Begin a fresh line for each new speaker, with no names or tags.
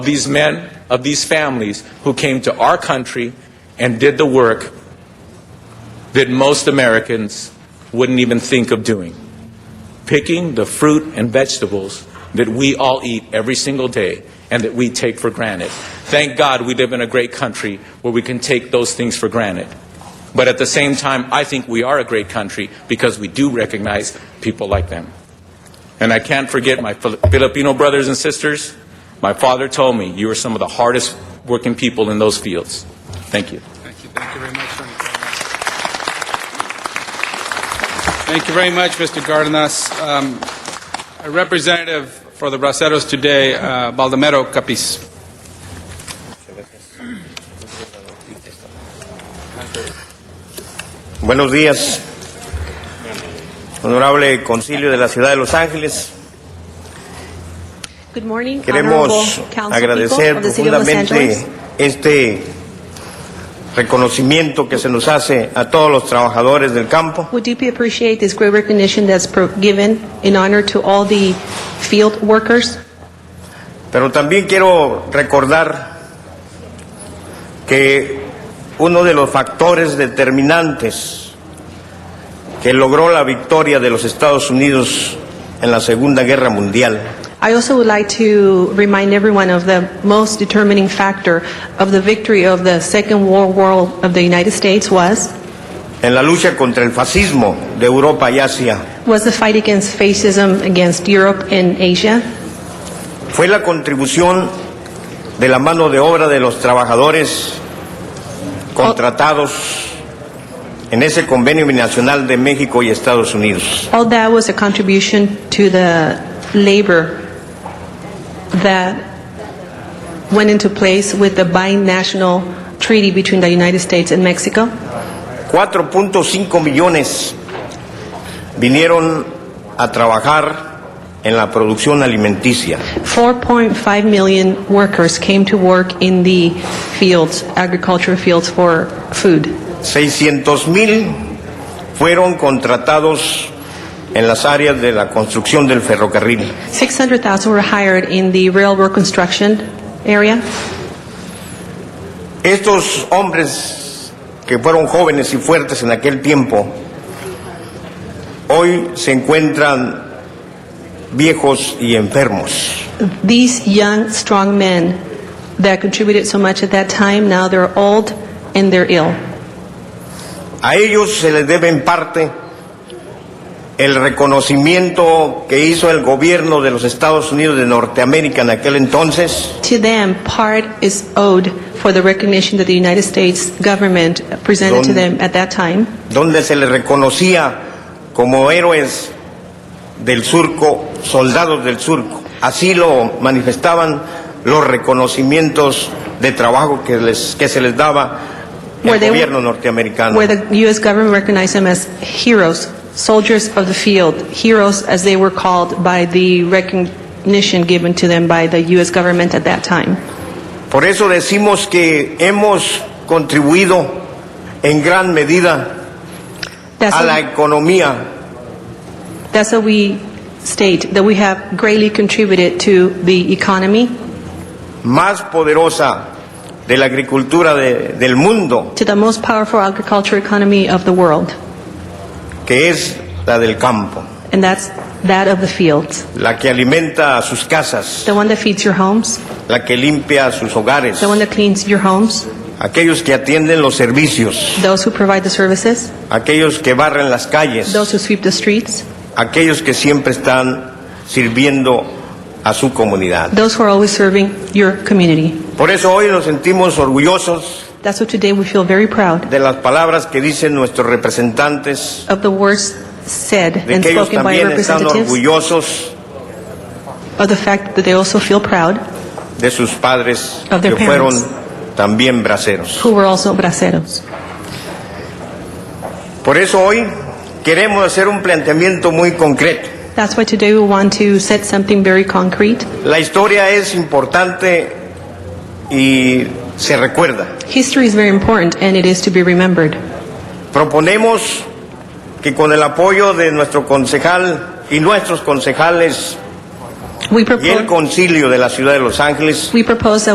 of these men, of these families who came to our country and did the work that most Americans wouldn't even think of doing picking the fruit and vegetables that we all eat every single day and that we take for granted. Thank God we live in a great country where we can take those things for granted. But at the same time, I think we are a great country because we do recognize people like them. And I can't forget my Fili- Filipino brothers and sisters. My father told me you are some of the hardest working people in those fields. Thank you.
Thank you, thank you very much, Senator Cardenas. Thank you very much, Mr. Cardenas. Um, a representative for the Braceros today, uh, Baldomero Capiz.
Buenos días, honorable concilio de la ciudad de Los Ángeles.
Good morning, honorable
Queremos
council people
agradecer
of the city of Los Angeles.
profundamente este reconocimiento que se nos hace a todos los trabajadores del campo.
We deeply appreciate this great recognition that's pro- given in honor to all the field workers.
Pero también quiero recordar que uno de los factores determinantes que logró la victoria de los Estados Unidos en la Segunda Guerra Mundial
I also would like to remind everyone of the most determining factor of the victory of the Second World War of the United States was,
en la lucha contra el fascismo de Europa y Asia
was the fight against fascism against Europe and Asia.
fue la contribución de la mano de obra de los trabajadores contratados en ese convenio binacional de México y Estados Unidos.
All that was a contribution to the labor that went into place with the binational treaty between the United States and Mexico.
4.5 millones vinieron a trabajar en la producción alimenticia.
4.5 million workers came to work in the fields, agricultural fields for food.
600 mil fueron contratados en las áreas de la construcción del ferrocarril.
600,000 were hired in the railroad construction area.
Estos hombres que fueron jóvenes y fuertes en aquel tiempo, hoy se encuentran viejos y enfermos.
These young, strong men that contributed so much at that time, now they're old and they're ill.
A ellos se les debe en parte el reconocimiento que hizo el gobierno de los Estados Unidos de Norteamérica en aquel entonces
To them, part is owed for the recognition that the United States government presented to them at that time,
donde se les reconocía como héroes del surco, soldados del surco. Así lo manifestaban los reconocimientos de trabajo que, les, que se les daba
Where
el
they-
gobierno norteamericano.
where the U.S. government recognized them as heroes, soldiers of the field, heroes as they were called by the recognition given to them by the U.S. government at that time.
Por eso decimos que hemos contribuido en gran medida
That's
a la
what,
economía
that's what we state, that we have greatly contributed to the economy,
más poderosa de la agricultura de- del mundo,
to the most powerful agricultural economy of the world,
que es la del campo,
and that's that of the fields,
la que alimenta a sus casas,
the one that feeds your homes.
la que limpia sus hogares,
The one that cleans your homes,
aquellos que atienden los servicios,
those who provide the services,
aquellos que barren las calles,
those who sweep the streets,
aquellos que siempre están sirviendo a su comunidad.
those who are always serving your community.
Por eso hoy nos sentimos orgullosos
That's why today we feel very proud
de las palabras que dicen nuestros representantes,
of the words said
de
and
que ellos
spoken by our
también están
representatives,
orgullosos
of the fact that they also feel proud,
de sus padres
Of
que
their
fueron
parents.
también braceros.
who were also braceros.
Por eso hoy queremos hacer un planteamiento muy concreto.
That's why today we want to set something very concrete.
La historia es importante y se recuerda.
History is very important, and it is to be remembered.
Proponemos que con el apoyo de nuestro concejal y nuestros concejales We
y el
propose,
concilio de la ciudad de Los Ángeles
we propose that